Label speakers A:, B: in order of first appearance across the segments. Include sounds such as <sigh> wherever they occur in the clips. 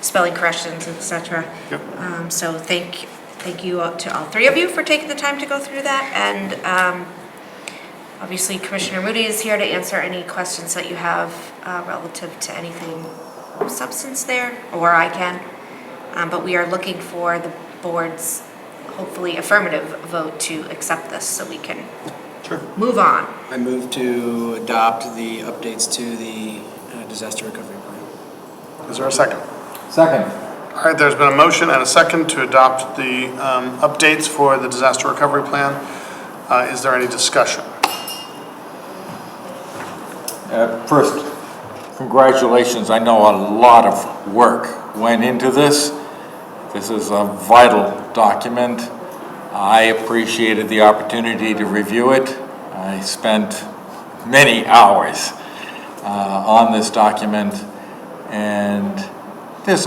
A: spelling corrections, et cetera.
B: Yep.
A: Um, So thank, thank you all- to all three of you for taking the time to go through that. And um, obviously Commissioner Moody is here to answer any questions that you have uh, relative to anything of substance there, or I can. Um, But we are looking for the board's hopefully affirmative vote to accept this so we can
B: Sure.
A: move on.
C: I move to adopt the updates to the uh, disaster recovery plan.
B: Is there a second?
D: Second.
B: All right, there's been a motion and a second to adopt the um, updates for the disaster recovery plan. Uh, Is there any discussion?
D: Uh, First, congratulations. I know a lot of work went into this. This is a vital document. I appreciated the opportunity to review it. I spent many hours uh, on this document, and this,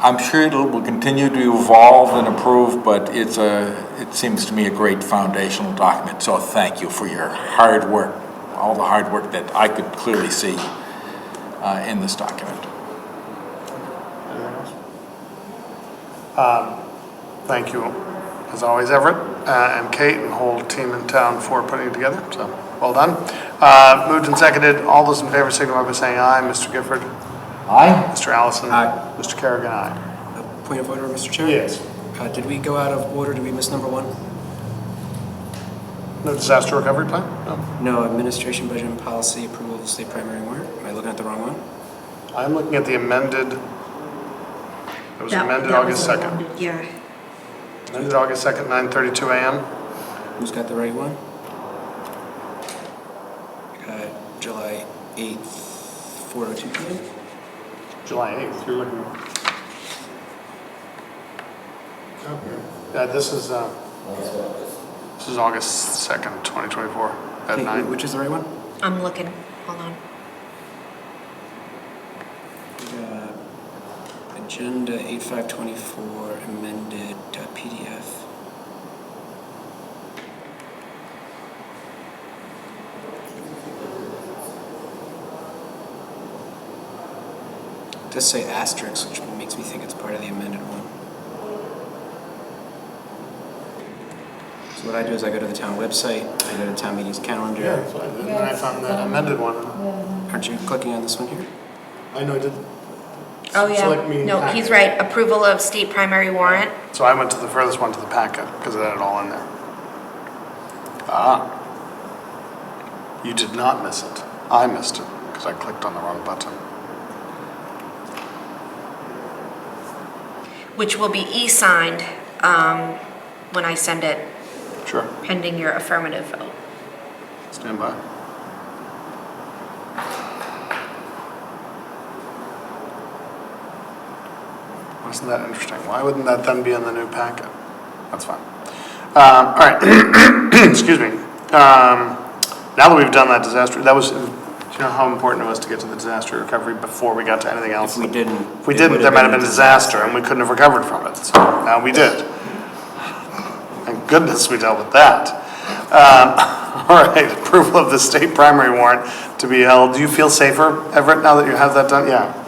D: I'm sure it will continue to evolve and improve, but it's a, it seems to me a great foundational document, so thank you for your hard work, all the hard work that I could clearly see uh, in this document.
B: Thank you, as always, Everett uh, and Kate and the whole team in town for putting it together, so well done. Uh, Moved and seconded, all those in favor signify by saying aye. Mr. Gifford?
D: Aye?
B: Mr. Allison?
C: Aye.
B: Mr. Carrigan, aye.
C: Uh, Point of order, Mr. Chair?
B: Yes.
C: Uh, Did we go out of order? Did we miss number one?
B: No disaster recovery plan? No.
C: No, administration budget and policy approval of the state primary warrant. Am I looking at the wrong one?
B: I'm looking at the amended, it was amended August 2nd.
A: Yeah.
B: Amended August 2nd, 9:32 a.m.
C: Who's got the right one? Uh, July oh 8th, 4:02 PM?
B: July 8th, you're looking. Yeah, this is, uh, this is August 2nd, 2024, at
C: Hey,
B: 9.
C: Which is the right one?
A: I'm looking, hold on.
C: Uh, Agenda 8524 amended uh, PDF. It Does say asterisk, which makes me think it's part of the amended one. So what I do is I go to the town website, I go to town meeting's calendar.
B: so I- and then I found the amended one.
C: Aren't you clicking on this one here?
B: I know, I did.
A: Oh, yeah.
B: Select meeting
A: No,
B: packet.
A: he's right. Approval of state primary warrant.
B: So I went to the furthest one to the packet, because it had it all in there. Ah. You did not miss it. I missed it, because I clicked on the wrong button.
A: which will be e-signed um, when I send it,
B: Sure.
A: pending your affirmative vote.
B: Stand by. Wasn't that interesting? Why wouldn't that then be in the new packet? That's fine. Um, All right, <clears throat> excuse me. Um, Now that we've done that disaster, that was, do you know how important it was to get to the disaster recovery before we got to anything else?
C: If we didn't.
B: If we
C: it
B: didn't,
C: would've
B: there might have been a
C: a
B: disaster, and we couldn't have recovered from it. So Now we did. Thank goodness we dealt with that. Um, <laughs> All right, approval of the state primary warrant to be held. Do you feel safer, Everett, now that you have that done? Yeah.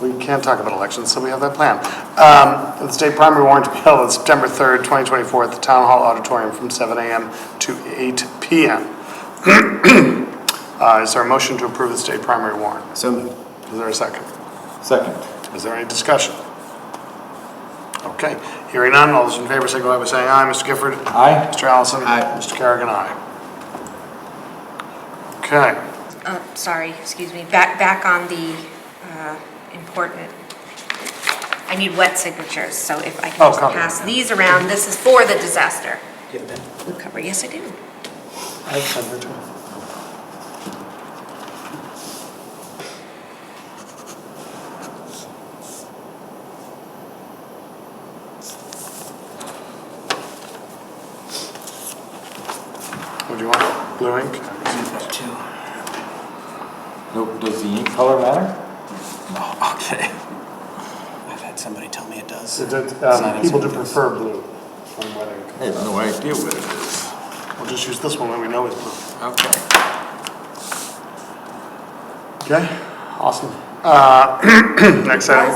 B: We can't talk about elections, so we have that plan. Um, The state primary warrant to be held on September 3rd, 2024, at the Town Hall Auditorium from 7 a.m. to 8 p.m. <clears throat> Uh, Is there a motion to approve the state primary warrant?
C: So moved.
B: Is there a second?
D: Second.
B: Is there any discussion? Okay, hearing none, all those in favor signify by saying aye. Mr. Gifford?
D: Aye?
B: Mr. Allison?
C: Aye.
B: Mr. Carrigan, aye. Okay,
A: Uh, Sorry, excuse me, back, back on the uh, important, I need wet signatures, so if I
B: Oh,
A: can just
B: copy.
A: pass these around, this is for the disaster
C: You have that?
A: recovery, yes, I do.
B: I have time for two. What do you want, blue ink?
C: You have that too.
D: Nope, does the ink color <laughs> matter?
C: Oh, okay. I've had somebody tell me it does.
B: It
C: It's
B: did,
C: not
B: um,
C: in
B: people do
C: some of those.
B: prefer blue on wet ink.
D: I have no idea what it is.
B: We'll just use this one when we know it's blue.
D: Okay.
B: Okay, awesome. Uh, <clears throat> Next item.